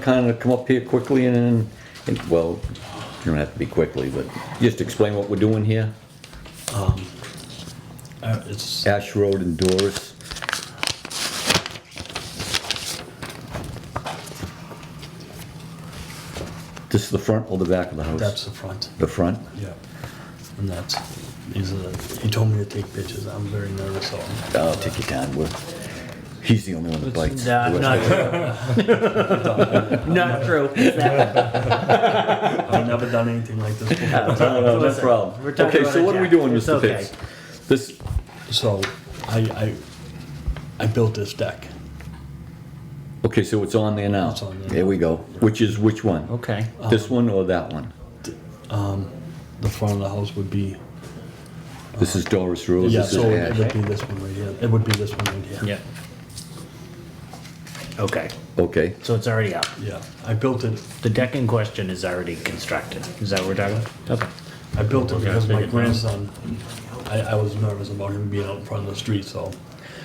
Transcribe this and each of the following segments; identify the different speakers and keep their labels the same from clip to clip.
Speaker 1: kind of come up here quickly and, then- and, well, you don't have to be quickly, but just explain what we're doing here?
Speaker 2: Um, Uh, It's,
Speaker 1: Ash Road and Doris. This is the front or the back of the house?
Speaker 2: that's the front,
Speaker 1: The front?
Speaker 2: yeah. And that's, these are, the- he told me to take pictures, I'm very nervous, so. I'm-
Speaker 1: I'll take your time, Will. He's the only one that bites.
Speaker 3: Nah,
Speaker 1: The
Speaker 3: not
Speaker 1: rest-
Speaker 3: true. Not true. Exactly.
Speaker 2: I've never done anything like this before.
Speaker 1: No, no, no
Speaker 3: Listen,
Speaker 1: problem.
Speaker 3: we're talking
Speaker 1: Okay,
Speaker 3: about
Speaker 1: so
Speaker 3: a
Speaker 1: what are we
Speaker 3: jack.
Speaker 1: doing,
Speaker 3: It's
Speaker 1: Mr.
Speaker 3: okay.
Speaker 1: Pitts? This,
Speaker 2: So, I, I, I built this deck.
Speaker 1: okay, so it's on there now?
Speaker 2: It's on there.
Speaker 1: There we go. Which is which one?
Speaker 3: Okay.
Speaker 1: This one or that one?
Speaker 2: The front of the house would be,
Speaker 1: This is Doris Rose,
Speaker 2: yeah,
Speaker 1: this is
Speaker 2: so it
Speaker 1: Ash.
Speaker 2: would be this one right here, it would be this one right here.
Speaker 3: Yeah. Okay,
Speaker 1: Okay,
Speaker 3: so it's already up.
Speaker 2: Yeah, I built it,
Speaker 3: The deck in question is already constructed. Is that what we're talking about? Okay.
Speaker 2: I built it
Speaker 3: Okay,
Speaker 2: because my
Speaker 3: take it down.
Speaker 2: grandson, I, I was nervous about him being out in front of the street, so.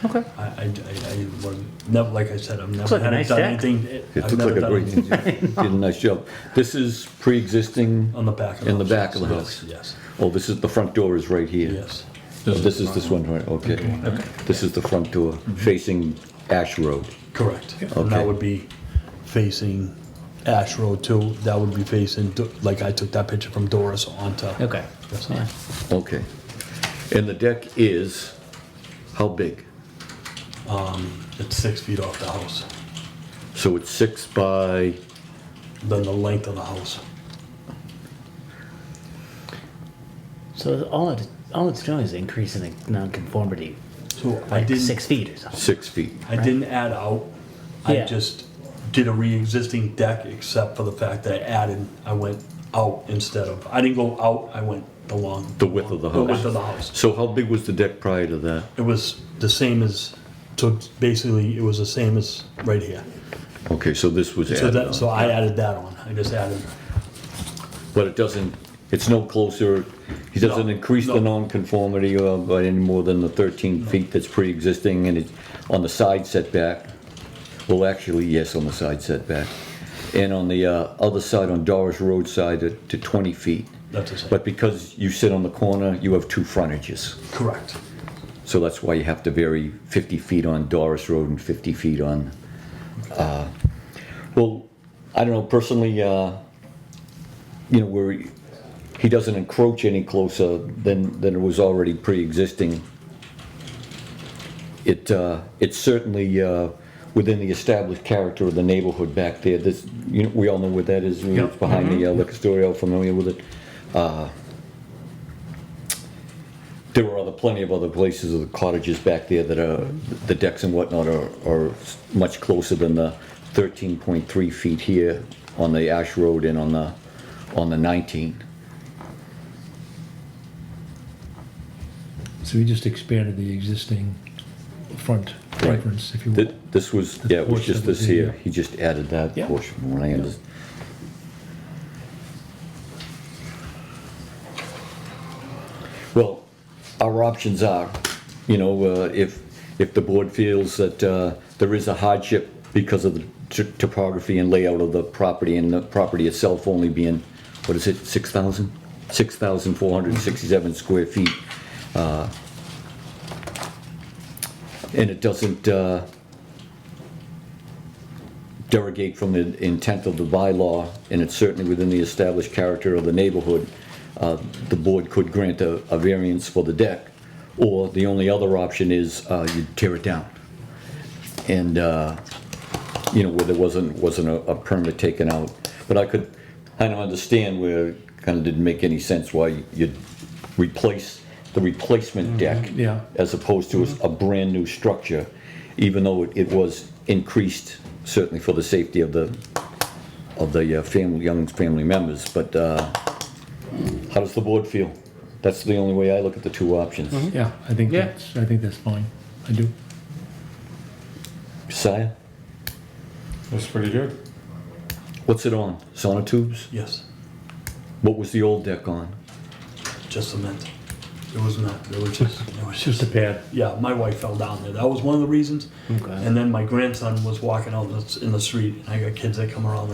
Speaker 3: Okay.
Speaker 2: I, I, I- I was, never, like I said, I've never
Speaker 3: like a
Speaker 2: had it
Speaker 3: nice
Speaker 2: done
Speaker 3: deck.
Speaker 2: anything. It
Speaker 1: it looks like a great, you did a nice job. This is pre-existing?
Speaker 2: On the back of the
Speaker 1: In the
Speaker 2: house,
Speaker 1: back of the
Speaker 2: yes,
Speaker 1: house?
Speaker 2: Yes,
Speaker 1: Oh, this is, the front door is right here?
Speaker 2: yes,
Speaker 1: Oh, This is this one, right, okay. This is the front door facing Ash Road.
Speaker 2: correct. And
Speaker 1: Okay.
Speaker 2: that would be facing Ash Road too, that would be facing, Do- like I took that picture from Doris onto.
Speaker 3: Okay.
Speaker 2: Yes.
Speaker 3: Yeah.
Speaker 1: Okay. And the deck is, how big?
Speaker 2: It's six feet off the house,
Speaker 1: So it's six by,
Speaker 2: then the length of the house.
Speaker 3: So all it all it's doing is increasing the nonconformity
Speaker 2: So I
Speaker 3: like
Speaker 2: didn't,
Speaker 3: six feet or something.
Speaker 1: six feet.
Speaker 2: I didn't add out, I
Speaker 3: Yeah.
Speaker 2: just did a re-existing deck except for the fact that I added, I went out instead of, I didn't go out, I went the long.
Speaker 1: The width of the
Speaker 2: The width
Speaker 1: house.
Speaker 2: of the house.
Speaker 1: So how big was the deck prior to that?
Speaker 2: It was the same as, so basically, it was the same as right here.
Speaker 1: Okay, so this was
Speaker 2: So
Speaker 1: added
Speaker 2: that, so
Speaker 1: on.
Speaker 2: I added that on, I just added,
Speaker 1: But it doesn't, it's no closer, he doesn't
Speaker 2: No,
Speaker 1: increase the
Speaker 2: no.
Speaker 1: nonconformity uh, by any more than the 13 feet that's pre-existing and it, on the side setback. Well, actually, yes, on the side setback. And on the uh, other side, on Doris Road side, to to 20 feet.
Speaker 2: that's the same,
Speaker 1: But because you sit on the corner, you have two frontages.
Speaker 2: correct,
Speaker 1: So that's why you have to vary 50 feet on Doris Road and 50 feet on, uh, well, I don't know, personally, uh, you know, where he doesn't encroach any closer than, than it was already pre-existing. It, uh, it's certainly uh, within the established character of the neighborhood back there. This, you know, we all know where that is, you know, it's behind the uh, liquor store, all familiar with it. Uh, There are other, plenty of other places, of the cottages back there that are, the decks and whatnot are, are much closer than the 13.3 feet here on the Ash Road and on the, on the 19.
Speaker 4: So we just expanded the existing front
Speaker 1: Right.
Speaker 4: entrance, if you
Speaker 1: Th-
Speaker 4: will.
Speaker 1: This was, yeah, it was
Speaker 4: portion
Speaker 1: just
Speaker 4: that
Speaker 1: this
Speaker 4: was in
Speaker 1: here,
Speaker 4: here.
Speaker 1: he just added that
Speaker 4: Yeah.
Speaker 1: portion when I under- Well, our options are, you know, uh, if, if the board feels that uh, there is a hardship because of the t- topography and layout of the property and the property itself only being, what is it, 6,000? 6,467 square feet. uh, And it doesn't, uh, derogate from the intent of the bylaw, and it's certainly within the established character of the neighborhood, uh, the board could grant a a variance for the deck, or the only other option is uh, you tear it down. And, uh, you know, where there wasn't, wasn't a a permit taken out. But I could kind of understand where it kind of didn't make any sense why you'd replace the replacement deck
Speaker 4: yeah.
Speaker 1: as opposed to a brand-new structure, even though it- it was increased certainly for the safety of the, of the uh, family, young family members, but uh, how does the board feel? That's the only way I look at the two options.
Speaker 4: Yeah, I think
Speaker 3: Yeah.
Speaker 4: that's, I think that's fine. I do.
Speaker 1: Josiah,
Speaker 5: That's pretty good.
Speaker 1: what's it on? Sonotubes?
Speaker 2: yes,
Speaker 1: What was the old deck on?
Speaker 2: just cement. It was not, it was just, it was just,
Speaker 4: a pad.
Speaker 2: yeah, my wife fell down there, that was one of the reasons.
Speaker 3: Okay.
Speaker 2: And then my grandson was walking out in the- in the street, and I got kids that come around the